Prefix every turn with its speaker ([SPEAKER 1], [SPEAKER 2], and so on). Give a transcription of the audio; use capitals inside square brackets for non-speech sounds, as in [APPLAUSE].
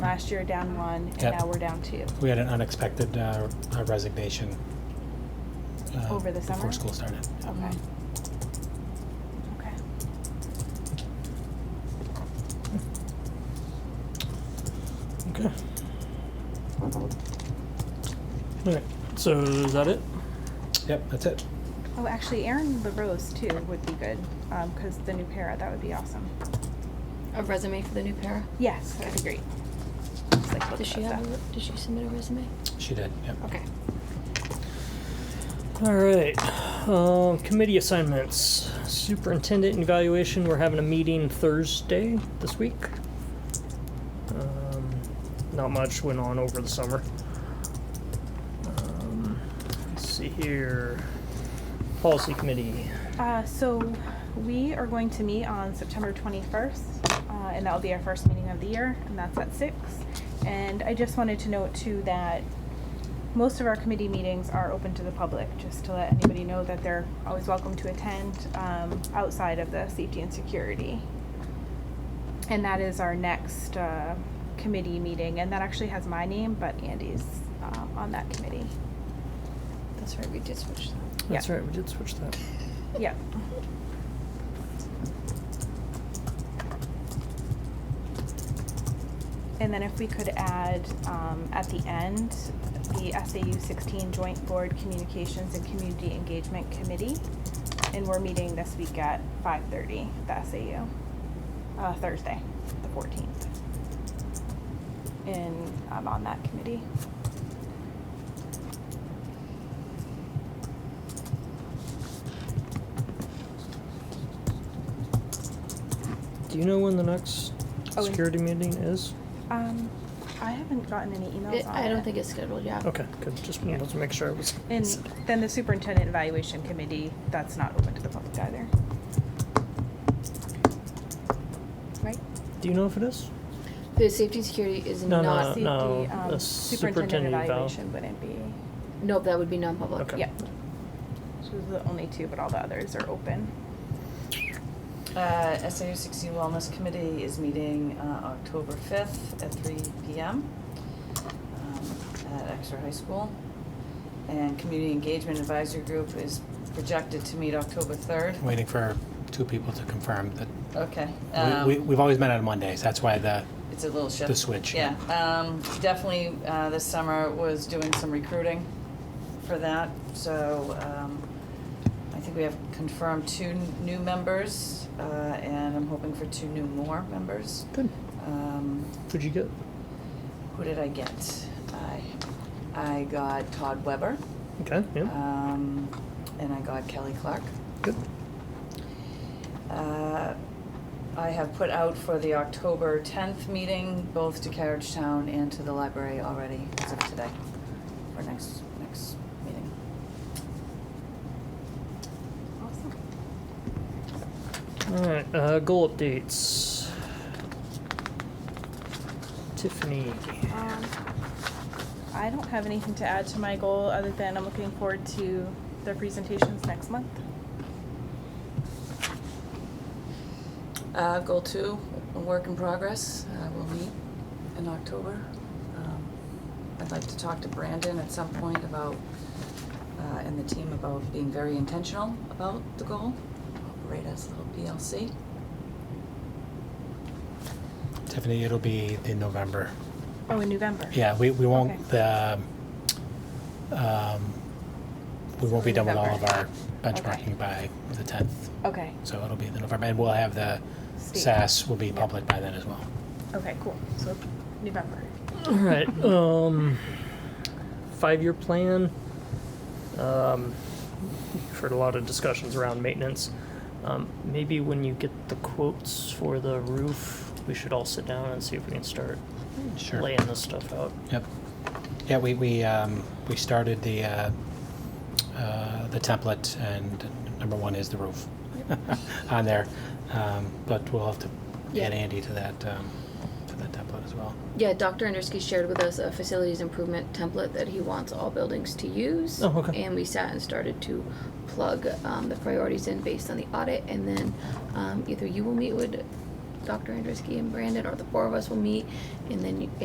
[SPEAKER 1] last year down one, and
[SPEAKER 2] Yep.
[SPEAKER 1] now we're down two.
[SPEAKER 2] We had an unexpected uh, uh, resignation. uh,
[SPEAKER 1] Over the summer?
[SPEAKER 2] Before school started.
[SPEAKER 1] Okay. Okay.
[SPEAKER 3] Okay. Okay, so is that it?
[SPEAKER 2] Yep, that's it.
[SPEAKER 1] Oh, actually, Aaron LaRose too would be good, um, cause the new para, that would be awesome.
[SPEAKER 4] A resume for the new para?
[SPEAKER 1] Yes, that'd be great. Just like look
[SPEAKER 4] Does
[SPEAKER 1] at
[SPEAKER 4] she
[SPEAKER 1] that
[SPEAKER 4] have,
[SPEAKER 1] stuff.
[SPEAKER 4] a- did she submit a resume?
[SPEAKER 2] She did, yep.
[SPEAKER 4] Okay.
[SPEAKER 3] All right. Um, committee assignments. Superintendent evaluation. We're having a meeting Thursday this week. Um, not much went on over the summer. Um, let's see here. Policy committee.
[SPEAKER 1] Uh, so we are going to meet on September 21st, uh, and that'll be our first meeting of the year, and that's at 6. And I just wanted to note too that most of our committee meetings are open to the public, just to let anybody know that they're always welcome to attend um, outside of the safety and security. And that is our next uh, committee meeting, and that actually has my name, but Andy's uh, on that committee.
[SPEAKER 4] That's right, we did switch that.
[SPEAKER 3] That's
[SPEAKER 1] Yeah.
[SPEAKER 3] right. We did switch that.
[SPEAKER 1] Yep. And then if we could add, um, at the end, the SAU sixteen Joint Board Communications and Community Engagement Committee. And we're meeting this week at five thirty, the SAU, uh, Thursday, the fourteenth. And I'm on that committee.
[SPEAKER 3] Do you know when the next
[SPEAKER 1] Oh, in-
[SPEAKER 3] security meeting is?
[SPEAKER 1] Um, I haven't gotten any emails
[SPEAKER 4] It-
[SPEAKER 1] on it.
[SPEAKER 4] I don't think it's scheduled, yeah.
[SPEAKER 3] Okay, good. Just
[SPEAKER 1] Yeah.
[SPEAKER 3] wanted to make sure it was. [LAUGHS]
[SPEAKER 1] And then the superintendent evaluation committee, that's not open to the public either.
[SPEAKER 4] Right?
[SPEAKER 3] Do you know if it is?
[SPEAKER 4] The safety and security is
[SPEAKER 3] No, no,
[SPEAKER 4] not,
[SPEAKER 1] See,
[SPEAKER 3] Uh, no,
[SPEAKER 1] the, um,
[SPEAKER 3] the
[SPEAKER 1] Superintendent
[SPEAKER 3] superintendent eval.
[SPEAKER 1] evaluation wouldn't be,
[SPEAKER 4] no, that would be non-public.
[SPEAKER 3] Okay.
[SPEAKER 1] yeah. So those are the only two, but all the others are open.
[SPEAKER 5] Uh, SAU 60 Wellness Committee is meeting uh, October 5th at 3 PM um, at Exeter High School. And Community Engagement Advisory Group is projected to meet October 3rd.
[SPEAKER 2] Waiting for two people to confirm that,
[SPEAKER 5] Okay.
[SPEAKER 2] we-
[SPEAKER 5] um,
[SPEAKER 2] we, we've always met on Mondays, that's why the,
[SPEAKER 5] It's a little shift.
[SPEAKER 2] The switch,
[SPEAKER 5] Yeah, um, definitely, uh, this summer was doing some recruiting for that, so, um, I think we have confirmed two n- new members, uh, and I'm hoping for two new more members.
[SPEAKER 3] Good.
[SPEAKER 5] Um,
[SPEAKER 3] Who'd you get?
[SPEAKER 5] who did I get? I, I got Todd Weber,
[SPEAKER 3] Okay, yeah,
[SPEAKER 5] um, and I got Kelly Clark.
[SPEAKER 3] good.
[SPEAKER 5] Uh, I have put out for the October 10th meeting, both to Carriage Town and to the library already as of today, for next, next meeting.
[SPEAKER 1] Awesome.
[SPEAKER 3] All right, uh, goal updates. Tiffany.
[SPEAKER 1] Um, I don't have anything to add to my goal, other than I'm looking forward to the presentations next month.
[SPEAKER 5] Uh, Goal two, a work in progress, uh, we'll meet in October. Um, I'd like to talk to Brandon at some point about, uh, and the team about being very intentional about the goal, operate as a little PLC.
[SPEAKER 2] Tiffany, it'll be the November.
[SPEAKER 1] Oh, in November?
[SPEAKER 2] Yeah, we, we won't,
[SPEAKER 1] Okay.
[SPEAKER 2] the, um, we won't be done with all of our
[SPEAKER 1] Okay.
[SPEAKER 2] benchmarking by the 10th.
[SPEAKER 1] Okay,
[SPEAKER 2] So it'll be the November, and we'll have the
[SPEAKER 1] State.
[SPEAKER 2] SAS will be public by then as well.
[SPEAKER 1] okay, cool, so November.
[SPEAKER 3] All right, um, five-year plan. Um, you've heard a lot of discussions around maintenance. Um, maybe when you get the quotes for the roof, we should all sit down and see if we can start
[SPEAKER 2] Sure.
[SPEAKER 3] laying this stuff out.
[SPEAKER 2] Yep. Yeah, we, we, um, we started the, uh, uh, the template and number one is the roof [LAUGHS] on there. Um, but we'll have to
[SPEAKER 4] Yeah.
[SPEAKER 2] add Andy to that, um, to that template as well.
[SPEAKER 4] Yeah, Dr. Andersky shared with us a facilities improvement template that he wants all buildings to use.
[SPEAKER 3] Oh, okay.
[SPEAKER 4] And we sat and started to plug um, the priorities in based on the audit, and then um, either you will meet with Dr. Andruski and Brandon, or the four of us will meet, and then you,